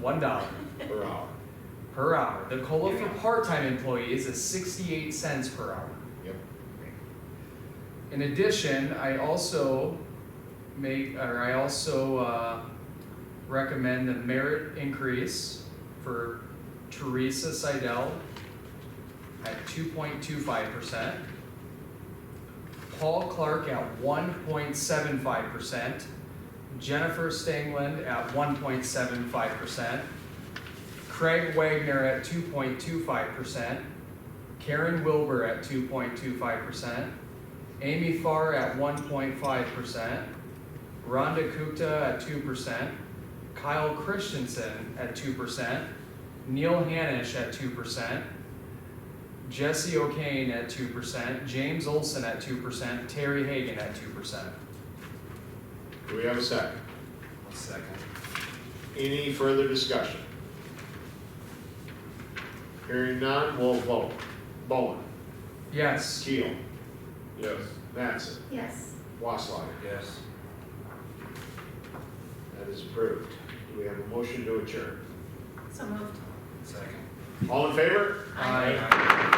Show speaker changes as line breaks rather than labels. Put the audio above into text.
one dollar
per hour.
per hour. The COLA for
Yeah.
part-time employee is a sixty-eight cents per hour.
Yep.
In addition, I also make, or I also, uh, recommend the merit increase for Teresa Seidel at two point two five percent. Paul Clark at one point seven five percent. Jennifer Stangland at one point seven five percent. Craig Wagner at two point two five percent. Karen Wilbur at two point two five percent. Amy Farr at one point five percent, Rhonda Gupta at two percent, Kyle Christensen at two percent, Neil Hannish at two percent, Jesse O'Kane at two percent, James Olson at two percent, Terry Hagan at two percent.
Do we have a second?
Second.
Any further discussion? Hearing none, we'll vote. Bowen,
Yes,
Keel,
Yes.
Mattson,
Yes.
Wasslerger.
Yes.
That is approved. Do we have a motion to adjourn?
So moved.
Second.
All in favor?
aye.